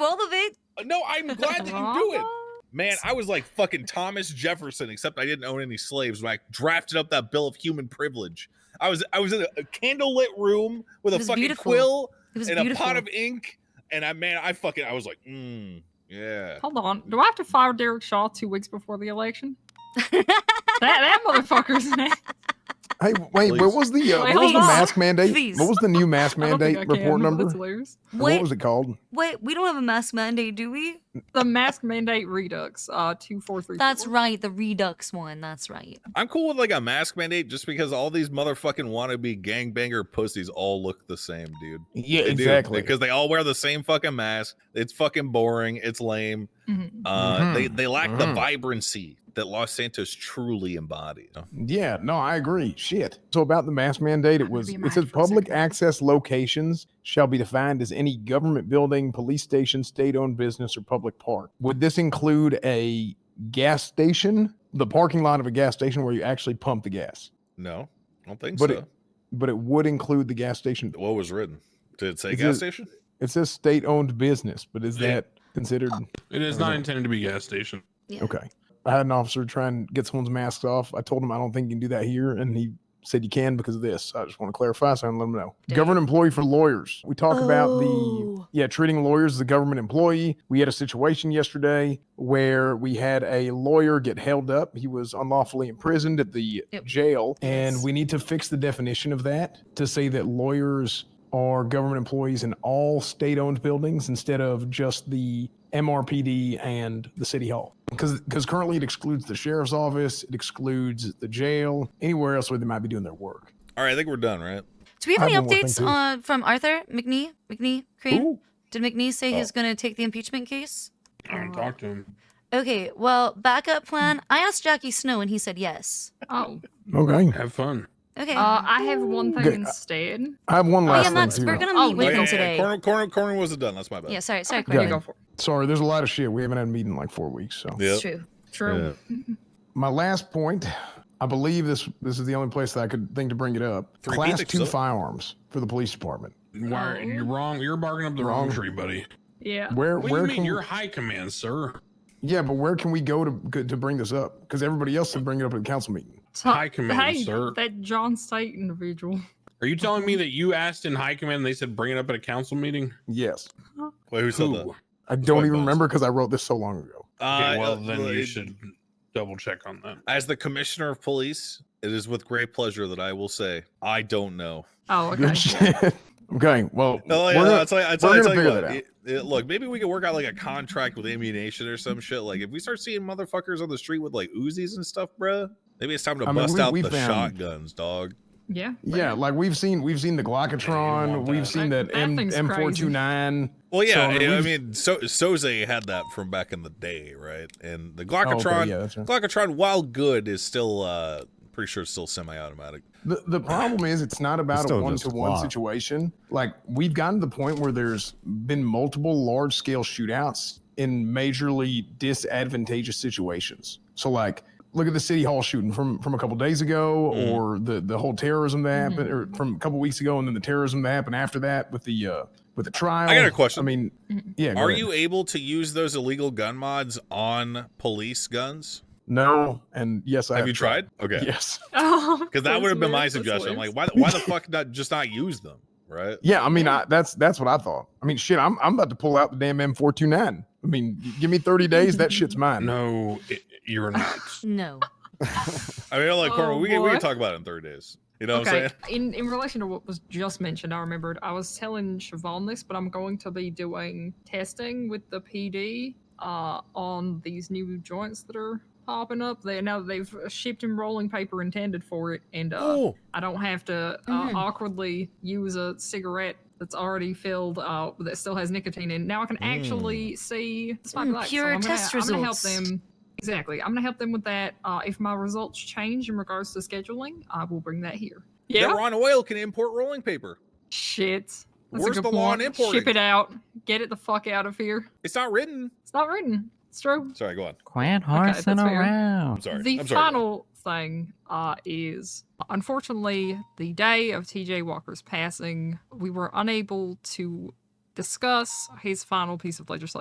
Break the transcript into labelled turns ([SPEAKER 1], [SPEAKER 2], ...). [SPEAKER 1] Uh, I'm glad that you do it. Man, I was like fucking Thomas Jefferson, except I didn't own any slaves. When I drafted up that Bill of Human Privilege, I was I was in a, a candlelit room with
[SPEAKER 2] It
[SPEAKER 1] a
[SPEAKER 2] was
[SPEAKER 1] fucking
[SPEAKER 2] beautiful.
[SPEAKER 1] quill
[SPEAKER 2] It was
[SPEAKER 1] and
[SPEAKER 2] beautiful.
[SPEAKER 1] a pot of ink, and I man, I fucking I was like, mm, yeah.
[SPEAKER 3] Hold on. Do I have to fire Derek Shaw two weeks before the election? that that motherfucker's name.
[SPEAKER 4] Hey, wait, where
[SPEAKER 1] Please.
[SPEAKER 4] was the uh,
[SPEAKER 3] Wait,
[SPEAKER 4] what was
[SPEAKER 3] hold
[SPEAKER 4] the
[SPEAKER 3] on.
[SPEAKER 4] mask mandate?
[SPEAKER 2] Please.
[SPEAKER 4] What was the new mask
[SPEAKER 3] I don't
[SPEAKER 4] mandate
[SPEAKER 3] think I can.
[SPEAKER 4] report number?
[SPEAKER 3] That's hilarious.
[SPEAKER 4] What
[SPEAKER 2] Wait,
[SPEAKER 4] was it called?
[SPEAKER 2] wait, we don't have a mask mandate, do we?
[SPEAKER 3] The mask mandate redux. Uh, two four three.
[SPEAKER 2] That's right, the Redux one. That's right.
[SPEAKER 1] I'm cool with like a mask mandate just because all these motherfucking wannabe gangbanger pussies all look the same, dude.
[SPEAKER 4] Yeah,
[SPEAKER 1] They do, because they all wear the same fucking mask. It's fucking boring. It's lame.
[SPEAKER 3] Mhm.
[SPEAKER 1] Uh, They
[SPEAKER 4] Mhm.
[SPEAKER 1] they lack the
[SPEAKER 4] Mhm.
[SPEAKER 1] vibrancy that Los Santos truly embodies.
[SPEAKER 4] Yeah, no, I agree. Shit. So about the mask mandate,
[SPEAKER 3] I'm
[SPEAKER 4] it
[SPEAKER 3] gonna
[SPEAKER 4] was
[SPEAKER 3] be
[SPEAKER 4] it
[SPEAKER 3] mad
[SPEAKER 4] says
[SPEAKER 3] for a
[SPEAKER 4] public
[SPEAKER 3] second.
[SPEAKER 4] access locations shall be defined as any government building, police station, state-owned business, or public park. Would this include a gas station, the parking lot of a gas station where you actually pump the gas?
[SPEAKER 1] No, I don't think
[SPEAKER 4] But
[SPEAKER 1] so.
[SPEAKER 4] it- But it would include the gas station.
[SPEAKER 1] what was written? Did it say
[SPEAKER 4] Is
[SPEAKER 1] gas
[SPEAKER 4] it-
[SPEAKER 1] station?
[SPEAKER 4] It says state-owned business, but is
[SPEAKER 1] Yeah.
[SPEAKER 4] that considered?
[SPEAKER 5] It is not intended to be gas station.
[SPEAKER 2] Yeah.
[SPEAKER 4] Okay. I had an officer try and get someone's masks off. I told him I don't think you can do that here, and he said you can because of this. I just want to clarify so I can let him know.
[SPEAKER 2] Damn.
[SPEAKER 4] Government employee for lawyers. We talk about the
[SPEAKER 2] Oh.
[SPEAKER 4] yeah treating lawyers as a government employee. We had a situation yesterday where we had a lawyer get held up. He was unlawfully imprisoned at the
[SPEAKER 2] Yep.
[SPEAKER 4] jail, and
[SPEAKER 2] Yes.
[SPEAKER 4] we need to fix the definition of that to say that lawyers are government employees in all state-owned buildings instead of just the MRPD and the city hall. Because because currently it excludes the sheriff's office, it excludes the jail, anywhere else where they might be doing their work.
[SPEAKER 1] All right, I think we're done, right?
[SPEAKER 2] Do we have
[SPEAKER 4] I
[SPEAKER 2] any
[SPEAKER 4] have one more thing,
[SPEAKER 2] updates
[SPEAKER 4] too.
[SPEAKER 2] on from Arthur McNee? McNee Crane?
[SPEAKER 4] Ooh.
[SPEAKER 2] Did McNee say
[SPEAKER 1] Oh.
[SPEAKER 2] he's going to take the impeachment case?
[SPEAKER 5] I don't talk to him.
[SPEAKER 2] Okay, well, backup plan. I asked Jackie Snow and he said yes.
[SPEAKER 3] Oh,
[SPEAKER 4] Okay.
[SPEAKER 5] Have fun.
[SPEAKER 2] Okay.
[SPEAKER 3] uh, I have one thing
[SPEAKER 4] Good.
[SPEAKER 3] instead.
[SPEAKER 4] I have one
[SPEAKER 2] oh, yeah,
[SPEAKER 4] last
[SPEAKER 2] Max,
[SPEAKER 4] thing
[SPEAKER 2] we're
[SPEAKER 4] too.
[SPEAKER 2] going to
[SPEAKER 3] Oh,
[SPEAKER 2] meet with
[SPEAKER 3] yeah,
[SPEAKER 2] him
[SPEAKER 3] yeah, yeah,
[SPEAKER 2] today.
[SPEAKER 1] corner corner corner wasn't done. That's my bad.
[SPEAKER 2] Yeah, sorry, sorry,
[SPEAKER 3] Okay,
[SPEAKER 2] Corey.
[SPEAKER 3] you go for it.
[SPEAKER 4] Sorry, there's a lot of shit we haven't had a meeting in like four weeks. So
[SPEAKER 1] Yep.
[SPEAKER 2] It's true.
[SPEAKER 3] True.
[SPEAKER 4] my last point, I believe this this is the only place that I could think to bring it up.
[SPEAKER 1] Three
[SPEAKER 4] Class
[SPEAKER 1] Phoenix,
[SPEAKER 4] two
[SPEAKER 1] huh?
[SPEAKER 4] firearms for the police department.
[SPEAKER 5] Why
[SPEAKER 3] Oh.
[SPEAKER 5] you're wrong? You're barking up the wrong,
[SPEAKER 4] Wrong.
[SPEAKER 5] tree, buddy.
[SPEAKER 3] Yeah.
[SPEAKER 4] Where
[SPEAKER 5] What do
[SPEAKER 4] where
[SPEAKER 5] you mean?
[SPEAKER 4] can
[SPEAKER 5] You're high command, sir.
[SPEAKER 4] yeah, but where can we go to go- to bring this up? Because everybody else can bring it up at the council meeting.
[SPEAKER 3] Ta-
[SPEAKER 5] High command,
[SPEAKER 3] hey,
[SPEAKER 5] sir.
[SPEAKER 3] that John State individual.
[SPEAKER 5] Are you telling me that you asked in high command and they said bring it up at a council meeting?
[SPEAKER 4] Yes,
[SPEAKER 1] Wait, who said that?
[SPEAKER 5] Who?
[SPEAKER 4] I
[SPEAKER 1] That's
[SPEAKER 4] don't
[SPEAKER 1] white
[SPEAKER 4] even
[SPEAKER 1] bones.
[SPEAKER 4] remember because I wrote this so long ago.
[SPEAKER 1] Uh,
[SPEAKER 5] Okay, well,
[SPEAKER 1] uh,
[SPEAKER 5] then you
[SPEAKER 1] it-
[SPEAKER 5] should double check on that.
[SPEAKER 1] As the commissioner of police, it is with great pleasure that I will say I don't know.
[SPEAKER 3] Oh,
[SPEAKER 4] Good
[SPEAKER 3] okay.
[SPEAKER 4] shit. okay, well,
[SPEAKER 1] No,
[SPEAKER 4] we're
[SPEAKER 1] yeah,
[SPEAKER 4] gonna-
[SPEAKER 1] no, it's like- it's
[SPEAKER 4] we're
[SPEAKER 1] like- it's
[SPEAKER 4] gonna
[SPEAKER 1] like
[SPEAKER 4] figure
[SPEAKER 1] what,
[SPEAKER 4] that
[SPEAKER 1] it- it- look, maybe we could work out like a contract with ammunition or some shit. Like if we start seeing motherfuckers on the street with like Uzis and stuff, bruh, maybe it's time to
[SPEAKER 4] I mean,
[SPEAKER 1] bust
[SPEAKER 4] we-
[SPEAKER 1] out
[SPEAKER 4] we
[SPEAKER 1] the
[SPEAKER 4] found-
[SPEAKER 1] shotguns, dog.
[SPEAKER 3] Yeah.
[SPEAKER 4] yeah, like we've seen we've seen the
[SPEAKER 5] Yeah, you
[SPEAKER 4] Glockatron,
[SPEAKER 5] want
[SPEAKER 4] we've
[SPEAKER 5] that.
[SPEAKER 4] seen
[SPEAKER 3] That-
[SPEAKER 4] that,
[SPEAKER 3] that
[SPEAKER 4] M
[SPEAKER 3] thing's
[SPEAKER 4] M four two nine.
[SPEAKER 1] Well, yeah,
[SPEAKER 4] So, I
[SPEAKER 1] I
[SPEAKER 4] mean,
[SPEAKER 1] mean, I
[SPEAKER 4] we've-
[SPEAKER 1] mean, so Soze had that from back in the day, right? And the Glockatron,
[SPEAKER 4] Oh, yeah, that's right.
[SPEAKER 1] Glockatron, while good, is still uh pretty sure it's still semi-automatic.
[SPEAKER 4] The, the problem is it's not about a
[SPEAKER 6] still
[SPEAKER 4] one
[SPEAKER 6] just
[SPEAKER 4] to
[SPEAKER 6] a
[SPEAKER 4] one
[SPEAKER 6] plot.
[SPEAKER 4] situation. Like we've gotten to the point where there's been multiple large scale shootouts in majorly disadvantageous situations. So like look at the city hall shooting from from a couple days ago
[SPEAKER 1] Mhm.
[SPEAKER 4] or the the whole terrorism that happened or from a couple weeks ago and then the terrorism that happened after that with the uh with the trial.
[SPEAKER 1] I got a question.
[SPEAKER 4] I mean,
[SPEAKER 3] Mhm.
[SPEAKER 4] yeah. go
[SPEAKER 1] Are
[SPEAKER 4] ahead.
[SPEAKER 1] you able to use those illegal gun mods on police guns?
[SPEAKER 4] No, and yes, I
[SPEAKER 1] Have you tried? Okay.
[SPEAKER 4] Yes.
[SPEAKER 3] Oh,
[SPEAKER 1] Because that would have been my
[SPEAKER 3] that's hilarious, that's
[SPEAKER 1] suggestion. I'm like,
[SPEAKER 3] hilarious.
[SPEAKER 1] why, the- why the fuck not just not use them, right?
[SPEAKER 4] Yeah, I mean,
[SPEAKER 3] Yeah.
[SPEAKER 4] I, that's that's what I thought. I mean, shit, I'm I'm about to pull out the damn M429. I mean, g- give me 30 days, that shit's mine.
[SPEAKER 5] No, i- you're not.
[SPEAKER 2] No.
[SPEAKER 1] I mean, like,
[SPEAKER 3] Oh,
[SPEAKER 1] Corbin, we, can, we can
[SPEAKER 3] boy.
[SPEAKER 1] talk about it in 30 days. You know what I'm
[SPEAKER 3] okay.
[SPEAKER 1] saying?
[SPEAKER 3] In in relation to what was just mentioned, I remembered I was telling Siobhan this, but I'm going to be doing testing with the PD uh, on these new joints that are popping up. They now they've shipped in rolling paper intended for it, and uh, I don't have to uh,
[SPEAKER 2] Mhm.
[SPEAKER 3] awkwardly use a cigarette that's already filled uh, that still has nicotine in. it. Now I can actually see this might be
[SPEAKER 2] Mm,
[SPEAKER 3] like, so
[SPEAKER 2] pure
[SPEAKER 3] I'm gonna-
[SPEAKER 2] test
[SPEAKER 3] I'm gonna help
[SPEAKER 2] results.
[SPEAKER 3] them. Exactly. I'm gonna help them with that. Uh, if my results change in regards to scheduling, I will bring that here.
[SPEAKER 1] That
[SPEAKER 3] Yeah.
[SPEAKER 1] Ron Oil can import rolling paper.
[SPEAKER 3] Shit. That's
[SPEAKER 1] Where's
[SPEAKER 3] a good
[SPEAKER 1] the
[SPEAKER 3] point.
[SPEAKER 1] law on importing?
[SPEAKER 3] Ship it out. Get it the fuck out of here.
[SPEAKER 1] It's not written.
[SPEAKER 3] It's not written. It's true.
[SPEAKER 1] Sorry, go on.
[SPEAKER 6] Quit
[SPEAKER 3] that's
[SPEAKER 6] horsing
[SPEAKER 3] fair.
[SPEAKER 6] around.
[SPEAKER 1] I'm sorry.
[SPEAKER 3] The
[SPEAKER 1] I'm sorry.
[SPEAKER 3] final thing uh, is unfortunately, the day of TJ Walker's passing, we were unable to discuss his final piece of legislation.